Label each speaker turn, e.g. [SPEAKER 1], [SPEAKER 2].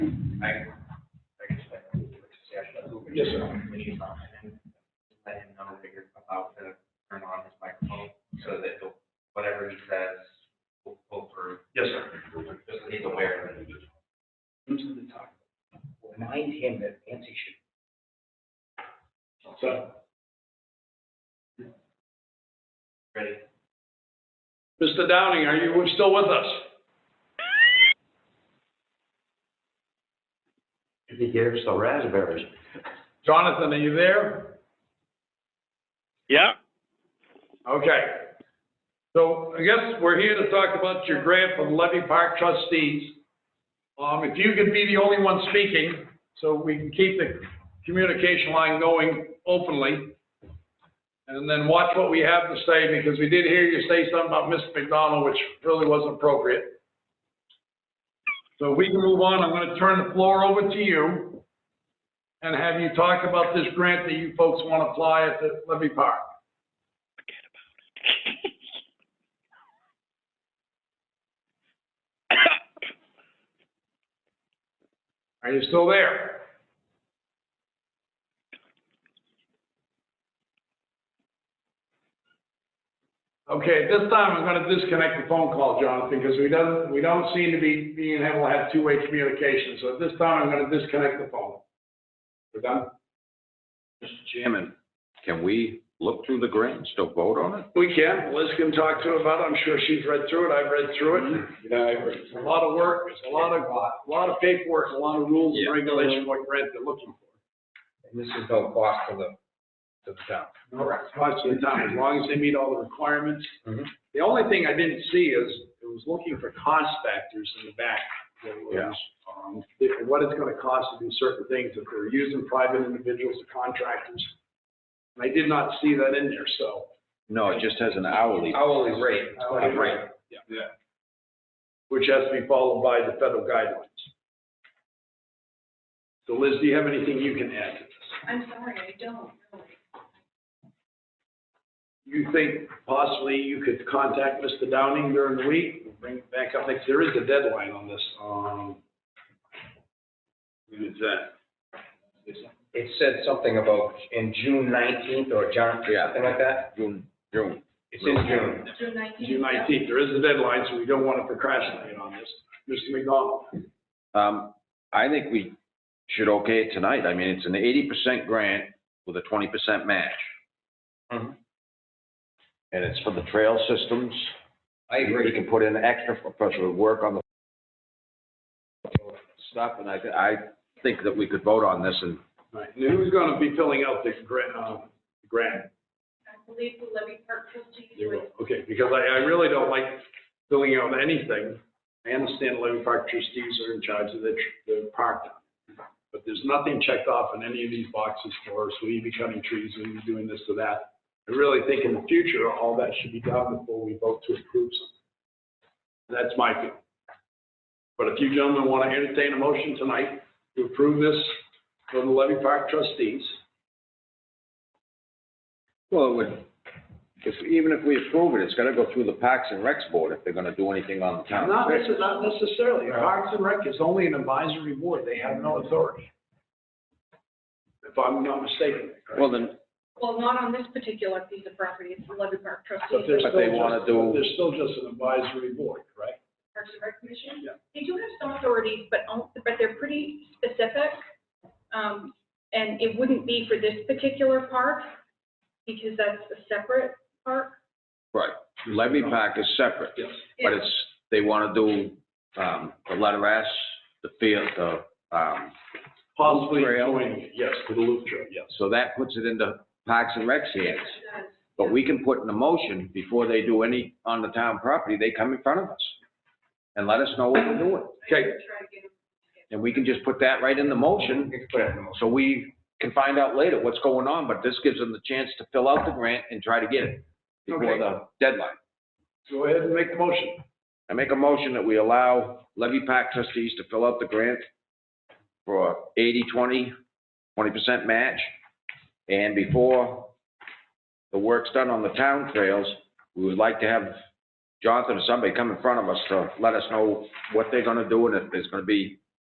[SPEAKER 1] Yes, sir.
[SPEAKER 2] When he's on, and then let him know that you're about to turn on his microphone, so that he'll- whatever he says will pull through,
[SPEAKER 1] Yes, sir.
[SPEAKER 2] just so he's aware of it.
[SPEAKER 1] Into the top.
[SPEAKER 3] Remind him that Nancy should
[SPEAKER 1] So,
[SPEAKER 2] Ready?
[SPEAKER 1] Mr. Downing, are you still with us?
[SPEAKER 4] If he gave us the raspberries.
[SPEAKER 1] Jonathan, are you there?
[SPEAKER 5] Yeah,
[SPEAKER 1] Okay. So I guess we're here to talk about your grant from Levy Park trustees. Um, if you could be the only one speaking, so we can keep the communication line going openly. And then watch what we have to say, because we did hear you say something about Mr. McDonald, which really wasn't appropriate. So if we can move on, I'm gonna turn the floor over to you and have you talk about this grant that you folks wanna apply at the Levy Park. Are you still there? Okay, at this time, I'm gonna disconnect the phone call, Jonathan, because we don't, we don't seem to be being able to have two-way communication. So at this time, I'm gonna disconnect the phone. We're done?
[SPEAKER 4] Mr. Chairman, can we look through the grant and still vote on it?
[SPEAKER 1] We can. Liz can talk to it about it. I'm sure she's read through it. I've read through it. Mm-hmm. You know, it's a lot of work, it's a lot of, a lot of paperwork, a lot of rules and
[SPEAKER 4] Yeah.
[SPEAKER 1] regulations, what grant they're looking for.
[SPEAKER 3] And this is no cost to the, to the town.
[SPEAKER 1] Correct. Cost of the time, as long as they meet all the requirements.
[SPEAKER 3] Mhm.
[SPEAKER 1] The only thing I didn't see is, it was looking for cost factors in the back. There was,
[SPEAKER 4] Yeah.
[SPEAKER 1] um, if- What it's gonna cost to do certain things, if they're using private individuals or contractors. And I did not see that in there, so.
[SPEAKER 4] No, it just has an hourly.
[SPEAKER 3] Hourly rate,
[SPEAKER 2] Oh,
[SPEAKER 3] hourly rate.
[SPEAKER 1] which has to be followed by the federal guidelines. So Liz, do you have anything you can add to this?
[SPEAKER 6] I'm sorry, I don't really.
[SPEAKER 1] You think possibly you could contact Mr. Downing during the week, and bring it back up, next. there is a deadline on this, um. When is that?
[SPEAKER 3] It said something about in June nineteenth or John,
[SPEAKER 4] Yeah.
[SPEAKER 3] something like that.
[SPEAKER 4] June, June.
[SPEAKER 3] It's in June.
[SPEAKER 6] June nineteenth.
[SPEAKER 1] June nineteenth, there is a deadline, so we don't want to procrastinate on this. Mr. McDonald,
[SPEAKER 4] Um, I think we should okay it tonight. I mean, it's an eighty percent grant with a twenty percent match. Mm-hmm.
[SPEAKER 3] Mhm.
[SPEAKER 4] And it's for the trail systems.
[SPEAKER 3] I
[SPEAKER 4] We
[SPEAKER 3] agree.
[SPEAKER 4] can put in extra for, for work on the stuff, and I, I think that we could vote on this and
[SPEAKER 1] right, and who's gonna be filling out the grant, um, grant?
[SPEAKER 6] I believe the Levy Park trustees
[SPEAKER 1] You
[SPEAKER 6] would
[SPEAKER 1] will, okay, because I, I really don't like filling out anything. I understand Levy Park trustees are in charge of the, tr- the park. But there's nothing checked off in any of these boxes for us, we be cutting trees, we be doing this or that. I really think in the future, all that should be done before we vote to approve something. That's my view. But if you gentlemen want to entertain a motion tonight to approve this from the Levy Park trustees,
[SPEAKER 4] Well, it would, if, even if we approve it, it's gotta go through the Parks and Recs Board if they're gonna do anything on the town.
[SPEAKER 1] Not necessarily, not necessarily. Parks and Rec is only an advisory board. They have no authority. If I'm not mistaken.
[SPEAKER 4] Well, then,
[SPEAKER 6] well, not on this particular piece of property, it's the Levy Park
[SPEAKER 1] But
[SPEAKER 6] trustees.
[SPEAKER 1] they're
[SPEAKER 4] But
[SPEAKER 1] still
[SPEAKER 4] they wanna
[SPEAKER 1] just-
[SPEAKER 4] do-
[SPEAKER 1] They're still just an advisory board, right?
[SPEAKER 6] Parks and Rec Commission.
[SPEAKER 1] Yeah.
[SPEAKER 6] They do have some authorities, but, on- but they're pretty specific. Um, and it wouldn't be for this particular park, because that's a separate park.
[SPEAKER 4] right, levy pack is separate,
[SPEAKER 1] Yes.
[SPEAKER 4] but it's, they wanna do, um, the letter S, the field, the, um,
[SPEAKER 1] Possibly
[SPEAKER 4] Trail.
[SPEAKER 1] joining it, yes, to the loop trail, yes.
[SPEAKER 4] so that puts it into Parks and Recs hands.
[SPEAKER 6] Yes.
[SPEAKER 4] But we can put in a motion before they do any on the town property, they come in front of us and let us know what they're doing.
[SPEAKER 6] I
[SPEAKER 1] Okay,
[SPEAKER 6] would try to get them-
[SPEAKER 4] And we can just put that right in the motion
[SPEAKER 3] You can put it in the motion.
[SPEAKER 4] So we can find out later what's going on, but this gives them the chance to fill out the grant and try to get it before
[SPEAKER 1] Okay.
[SPEAKER 4] the deadline.
[SPEAKER 1] go ahead and make the motion.
[SPEAKER 4] I make a motion that we allow levy pack trustees to fill out the grant for 80 20 percent match. And before the work's done on the town trails, we would like to have Jonathan or somebody come in front of us to let us know what they're gonna do and if there's gonna be